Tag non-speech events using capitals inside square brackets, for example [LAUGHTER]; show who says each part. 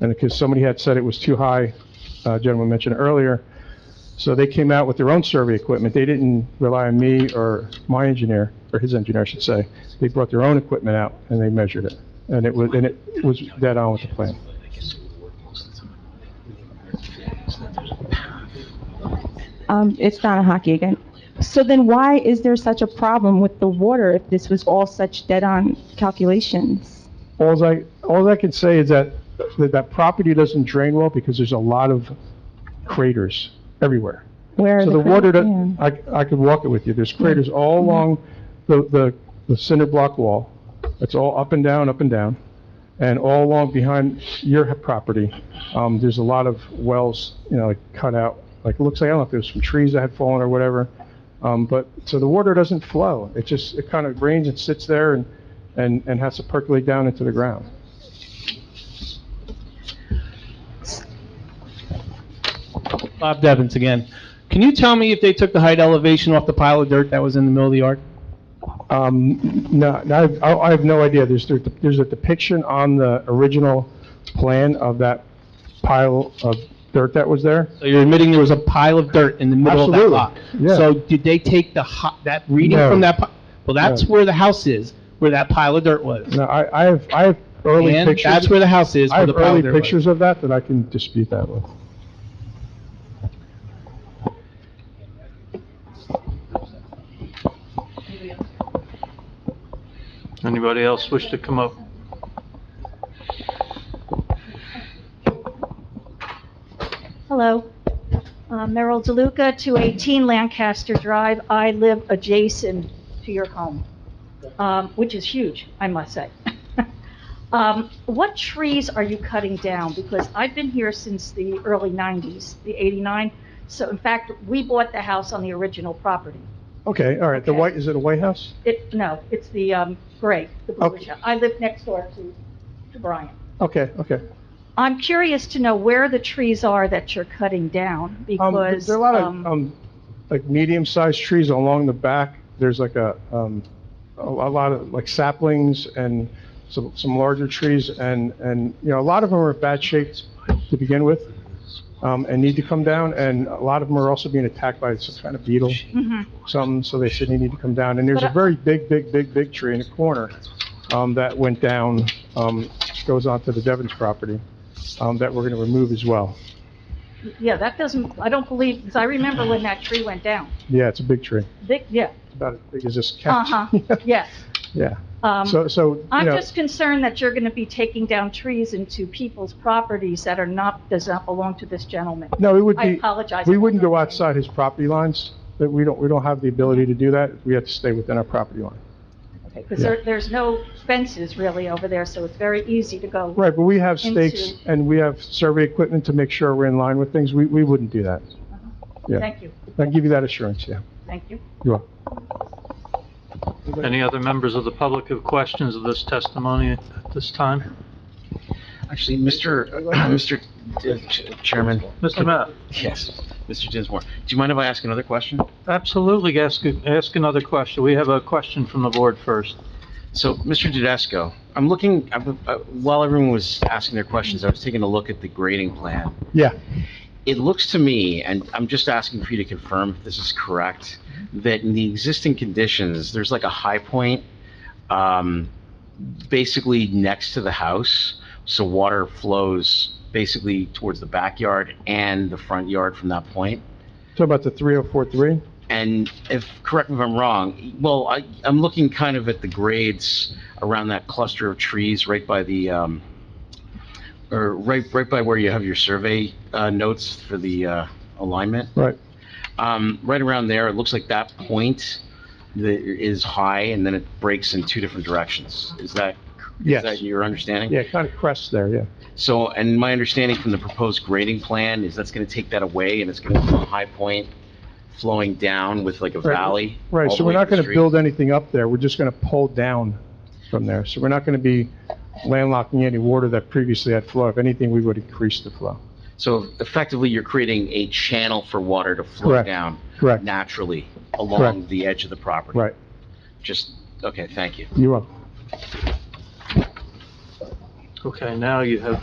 Speaker 1: and because somebody had said it was too high, uh, a gentleman mentioned earlier, so they came out with their own survey equipment. They didn't rely on me or my engineer, or his engineer, I should say. They brought their own equipment out and they measured it, and it was, and it was dead on with the plan.
Speaker 2: Um, it's Donna Hockey again. So then why is there such a problem with the water if this was all such dead-on calculations?
Speaker 1: Alls I, alls I can say is that, that that property doesn't drain well because there's a lot of craters everywhere.
Speaker 2: Where are
Speaker 1: So the
Speaker 2: cra-
Speaker 1: water,
Speaker 2: yeah.
Speaker 1: that- I, I could walk it with you, there's craters all along the, the, the cinder block wall. It's all up and down, up and down, and all along behind your property, um, there's a lot of wells, you know, like cut out, like, it looks like, I don't know if there's some trees that had fallen or whatever. Um, but, so the water doesn't flow, it just, it kind of rains and sits there and, and, and has to percolate down into the ground.
Speaker 3: Bob Devens again. Can you tell me if they took the height elevation off the pile of dirt that was in the middle of the yard?
Speaker 1: Um, no, no, I've- I I have no idea. There's, there- there's a depiction on the original plan of that pile of dirt that was there.
Speaker 3: So you're admitting there was a pile of dirt in the middle of that
Speaker 1: Absolutely,
Speaker 3: lot?
Speaker 1: yeah.
Speaker 3: So did they take the, ho- that reading
Speaker 1: No.
Speaker 3: from that, pi- well, that's
Speaker 1: No.
Speaker 3: where the house is, where that pile of dirt was.
Speaker 1: No, I, I have, I have early
Speaker 3: And
Speaker 1: pictures.
Speaker 3: that's where the house is,
Speaker 1: I have
Speaker 3: where the pile
Speaker 1: early
Speaker 3: of dirt was.
Speaker 1: pictures of that that I can dispute that with.
Speaker 4: Anybody else wish to come up?
Speaker 5: Hello. Uh, Merrill DeLuca, 218 Lancaster Drive. I live adjacent to your home, um, which is huge, I must say. [LAUGHS] Um, What trees are you cutting down? Because I've been here since the early 90s, the 89. So in fact, we bought the house on the original property.
Speaker 1: Okay, all right, the
Speaker 5: Okay.
Speaker 1: white, is it a White House?
Speaker 5: It, no, it's the um, gray, the bluish.
Speaker 1: Okay.
Speaker 5: I live next door to to Brian.
Speaker 1: Okay, okay.
Speaker 5: I'm curious to know where the trees are that you're cutting down
Speaker 1: Um, there
Speaker 5: because.
Speaker 1: there are a lot
Speaker 5: um,
Speaker 1: of, um, like medium-sized trees along the back. There's like a, um, a, a lot of like saplings and some, some larger trees and, and, you know, a lot of them are bad shaped to begin with, um, and need to come down, and a lot of them are also being attacked by some kind of beetle,
Speaker 5: mhm.
Speaker 1: some, so they said they need to come down. And there's a
Speaker 5: But I-
Speaker 1: very big, big, big, big tree in the corner, um, that went down, um, goes onto the Devon's property, um, that we're gonna remove as well.
Speaker 5: Yeah, that doesn't, I don't believe, because I remember when that tree went down.
Speaker 1: Yeah, it's a big tree.
Speaker 5: Big, yeah,
Speaker 1: about as big as this cat.
Speaker 5: uh-huh,
Speaker 1: [LAUGHS]
Speaker 5: yes.
Speaker 1: Yeah,
Speaker 5: Um,
Speaker 1: so, so, you
Speaker 5: I'm
Speaker 1: know,
Speaker 5: just concerned that you're going to be taking down trees into people's properties that are not, does not belong to this gentleman.
Speaker 1: no, it would
Speaker 5: I
Speaker 1: be,
Speaker 5: apologize.
Speaker 1: we wouldn't go outside his property lines, but we don't, we don't have the ability to do that. We have to stay within our property line.
Speaker 5: Because there, there's no fences really over there, so it's very easy to go.
Speaker 1: Right, but we have stakes
Speaker 5: Into-
Speaker 1: and we have survey equipment to make sure we're in line with things. We, we wouldn't do that. Yeah.
Speaker 5: Thank you,
Speaker 1: I can give you that assurance, yeah.
Speaker 5: thank you.
Speaker 1: You are.
Speaker 4: Any other members of the public have questions of this testimony at this time?
Speaker 6: Actually, Mr. [CLEARS THROAT] Mr. Ch- Chairman,
Speaker 4: Mr. Matt?
Speaker 6: yes, Mr. Dinsmore, do you mind if I ask another question?
Speaker 4: Absolutely, ask, ask another question. We have a question from the board first.
Speaker 6: So, Mr. Dudesco, I'm looking, I'm- uh, while everyone was asking their questions, I was taking a look at the grading plan.
Speaker 1: Yeah,
Speaker 6: It looks to me, and I'm just asking for you to confirm if this is correct, that in the existing conditions, there's like a high point, um, basically next to the house, so water flows basically towards the backyard and the front yard from that point.
Speaker 1: talking about the 3043?
Speaker 6: And if, correct me if I'm wrong, well, I, I'm looking kind of at the grades around that cluster of trees right by the, um, or right, right by where you have your survey, uh, notes for the, uh, alignment.
Speaker 1: Right.
Speaker 6: Um, right around there, it looks like that point that is high and then it breaks in two different directions. Is that, is
Speaker 1: Yes.
Speaker 6: that your understanding?
Speaker 1: Yeah, kind of crest there, yeah.
Speaker 6: So, and my understanding from the proposed grading plan is that's gonna take that away and it's gonna be a high point flowing down with like a
Speaker 1: Right.
Speaker 6: valley.
Speaker 1: Right,
Speaker 6: all
Speaker 1: so
Speaker 6: the
Speaker 1: we're
Speaker 6: way to
Speaker 1: not
Speaker 6: the
Speaker 1: going to
Speaker 6: street.
Speaker 1: build anything up there, we're just going to pull down from there. So we're not going to be landlocking any water that previously had flow. If anything, we would increase the flow.
Speaker 6: So effectively, you're creating a channel for water to flow
Speaker 1: Correct.
Speaker 6: down
Speaker 1: Correct,
Speaker 6: naturally along the edge of the property.
Speaker 1: right.
Speaker 6: Just, okay, thank you.
Speaker 1: You're up.
Speaker 4: Okay, now you have